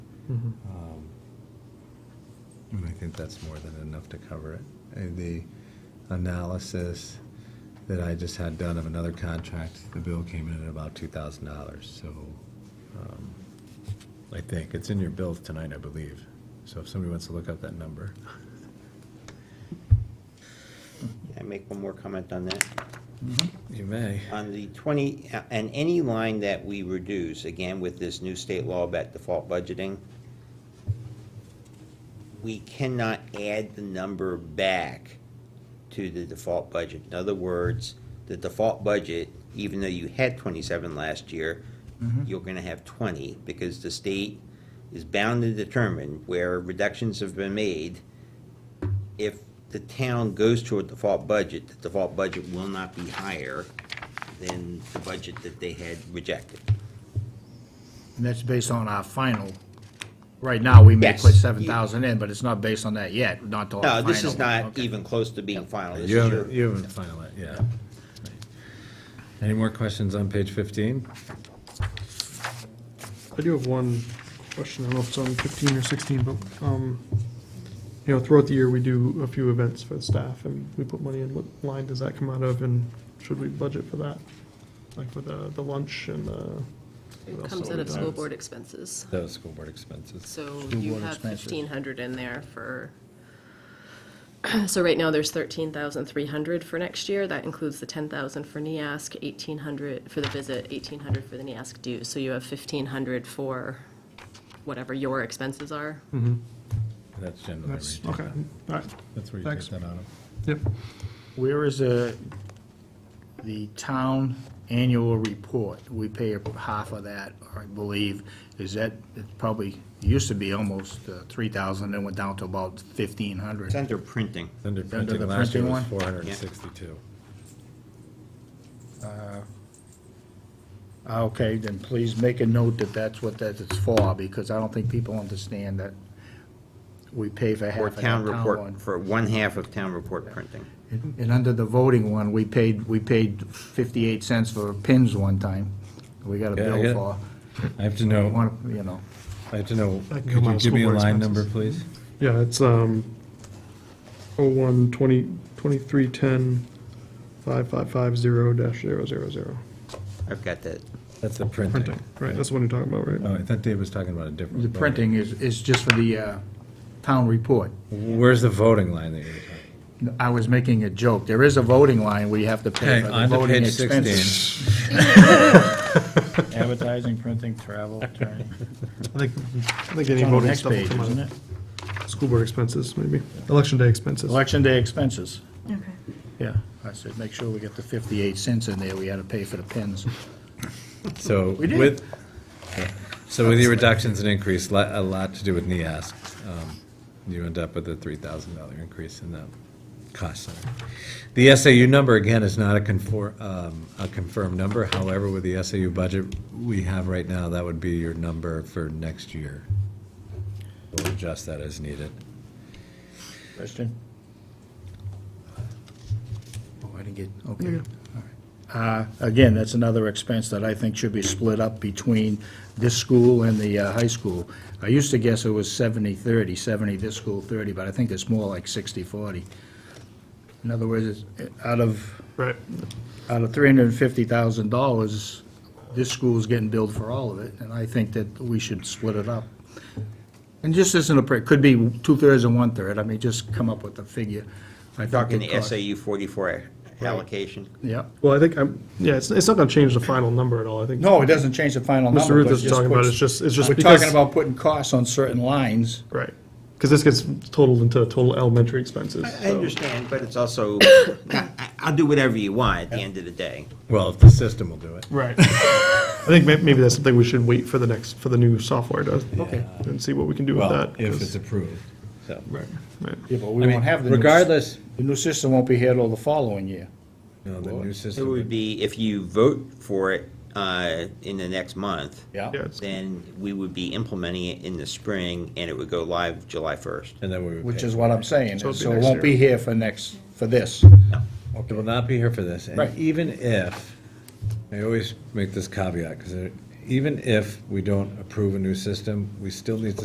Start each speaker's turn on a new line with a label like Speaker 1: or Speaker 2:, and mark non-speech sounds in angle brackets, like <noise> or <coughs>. Speaker 1: Mm-hmm.
Speaker 2: Mhm.
Speaker 3: Um, And I think that's more than enough to cover it. And the analysis that I just had done of another contract, the bill came in at about two thousand dollars, so, um, I think, it's in your bills tonight, I believe. So if somebody wants to look up that number. <laughs>
Speaker 4: Can I make one more comment on that?
Speaker 3: You may.
Speaker 4: On the 20, uh, and any line that we reduce, again, with this new state law about default budgeting, we cannot add the number back to the default budget. In other words, the default budget, even though you had 27 last year, you're going to have 20 because the state is bound to determine where reductions have been made. If the town goes to a default budget, the default budget will not be higher than the budget that they had rejected.
Speaker 2: And that's based on our final. Right now, we may
Speaker 4: Yes.
Speaker 2: put seven thousand in, but it's not based on that yet, not till. our
Speaker 4: No, this
Speaker 2: final.
Speaker 4: is not
Speaker 2: Okay.
Speaker 4: even close to being final. This
Speaker 3: You
Speaker 4: is your-
Speaker 3: haven't, you haven't finalized, yeah. Any more questions on page fifteen?
Speaker 1: I do have one question, I don't know if it's on fifteen or sixteen, but, um, you know, throughout the year, we do a few events for the staff, and we put money in, what line does that come out of, and should we budget for that? Like for the, the lunch and the.
Speaker 5: It comes out of school board expenses.
Speaker 3: That was school board expenses.
Speaker 5: So
Speaker 2: School
Speaker 5: you
Speaker 2: board
Speaker 5: have
Speaker 2: expenses.
Speaker 5: fifteen hundred in there for, <clears throat> so right now there's thirteen thousand three hundred for next year. That includes the ten thousand for E NIASC, eighteen hundred for the visit, eighteen hundred for the E NIASC dues. So you have fifteen hundred for whatever your expenses are.
Speaker 3: That's generally. where you
Speaker 1: That's,
Speaker 3: take
Speaker 1: okay,
Speaker 3: that.
Speaker 1: all right,
Speaker 3: That's where you
Speaker 1: Thanks.
Speaker 3: take that out of.
Speaker 1: yep,
Speaker 2: Where is the, the town annual report? We pay half of that, I believe. Is that, it's probably, used to be almost uh, three thousand, then went down to about fifteen hundred.
Speaker 4: It's under printing.
Speaker 3: Under
Speaker 2: Under
Speaker 3: printing
Speaker 2: the
Speaker 3: last year
Speaker 2: printing
Speaker 3: was
Speaker 2: one?
Speaker 3: four hundred and sixty-two.
Speaker 2: Okay, then please make a note that that's what that is for, because I don't think people understand that we pay for half
Speaker 4: Or
Speaker 2: of that
Speaker 4: town
Speaker 2: town one.
Speaker 4: report, for one half of town report printing.
Speaker 2: And and under the voting one, we paid, we paid 58 cents for pins one time. We got a
Speaker 3: Yeah, I
Speaker 2: bill
Speaker 3: got-
Speaker 2: for,
Speaker 3: I have to
Speaker 2: I
Speaker 3: know,
Speaker 2: wanna- you know.
Speaker 3: I have to know,
Speaker 1: That can
Speaker 3: could
Speaker 1: come out
Speaker 3: you
Speaker 1: of
Speaker 3: give me a
Speaker 1: school board
Speaker 3: line
Speaker 1: expenses.
Speaker 3: number, please?
Speaker 1: yeah, it's, um, oh, one, twenty, twenty-three, ten, five, five, five, zero, dash, zero, zero, zero,
Speaker 4: I've got that.
Speaker 3: That's the printing.
Speaker 1: printing, right, that's the one you're talking about, right?
Speaker 3: Oh, I thought Dave was talking about a different.
Speaker 2: The
Speaker 3: vote.
Speaker 2: printing is, is just for the uh, town report.
Speaker 3: Where's the voting line that you were talking?
Speaker 2: I was making a joke. There is a voting line we have to pay
Speaker 3: Okay,
Speaker 2: for
Speaker 3: on
Speaker 2: the
Speaker 3: to
Speaker 2: voting
Speaker 3: page
Speaker 2: expenses.
Speaker 3: sixteen.
Speaker 6: <laughs> Advertising, printing, travel,
Speaker 2: <laughs>
Speaker 6: attorney.
Speaker 1: I think, I think any
Speaker 6: It's on the
Speaker 1: voting
Speaker 6: next
Speaker 1: stuff will
Speaker 6: page,
Speaker 1: come out
Speaker 6: isn't
Speaker 1: of
Speaker 6: it?
Speaker 1: school board expenses, maybe, election day expenses.
Speaker 6: Election day expenses.
Speaker 2: Yeah, I said, make sure we get the 58 cents in there. We had to pay for the pins.
Speaker 3: So
Speaker 2: did.
Speaker 3: with, so with your reductions and increase, li- a lot to do with NEAS. um, You end up with a three thousand dollar increase in that cost center. The SAU number, again, is not a confor, um, a confirmed number. However, with the SAU budget we have right now, that would be your number for next year. We'll adjust that as needed.
Speaker 6: Question?
Speaker 2: Oh, I didn't get, okay. all right. Uh, Again, that's another expense that I think should be split up between this school and the uh, high school. I used to guess it was 70-30, 70 this school, 30, but I think it's more like 60-40. In other words, it's uh, out of,
Speaker 1: Right,
Speaker 2: out of $350,000, this school's getting billed for all of it, and I think that we should split it up. And just isn't a, it could be two-thirds and one-third, I mean, just come up with a figure. I think
Speaker 4: Talking
Speaker 2: it
Speaker 4: the
Speaker 2: costs-
Speaker 4: SAU 44 allocation.
Speaker 2: Yep.
Speaker 1: well, I think, I'm, yeah, it's, it's not gonna change the final number at all, I think.
Speaker 2: No, it doesn't change the final number.
Speaker 1: Mr. Ruth
Speaker 2: but it
Speaker 1: is talking about,
Speaker 2: puts-
Speaker 1: it's just, it's just
Speaker 2: We're
Speaker 1: because.
Speaker 2: talking about putting costs on certain lines.
Speaker 1: Right, because this gets totaled into total elementary expenses.
Speaker 4: I
Speaker 1: so-
Speaker 4: understand, but it's
Speaker 2: <coughs>
Speaker 4: also, I- I'll do whatever you want at the end of the day.
Speaker 3: Well, if the system will do it.
Speaker 1: Right. I think may- maybe that's something we should wait for the next, for the new software to,
Speaker 2: Okay.
Speaker 1: and see what we can do
Speaker 3: Well,
Speaker 1: with that.
Speaker 3: if
Speaker 1: 'cause-
Speaker 3: it's approved, so.
Speaker 1: Right, right.
Speaker 2: Yeah, but
Speaker 3: I
Speaker 2: we
Speaker 3: mean,
Speaker 2: won't have the new.
Speaker 3: Regardless,
Speaker 2: The new system won't be here till the following year.
Speaker 3: no, the new
Speaker 4: It
Speaker 3: system.
Speaker 4: would be, if you vote for it uh, in the next month,
Speaker 2: Yeah.
Speaker 1: Yeah, it's-
Speaker 4: then we would be implementing it in the spring, and it would go live July 1st.
Speaker 3: And then we would.
Speaker 2: Which
Speaker 3: pay.
Speaker 2: is what I'm saying,
Speaker 1: So it'll be
Speaker 2: so it
Speaker 1: next
Speaker 2: won't be
Speaker 1: year.
Speaker 2: here for next, for this.
Speaker 3: It will not be here for this. And
Speaker 2: Right.
Speaker 3: even if, I uh, always make this caveat, because even if we don't approve a new system, we still need to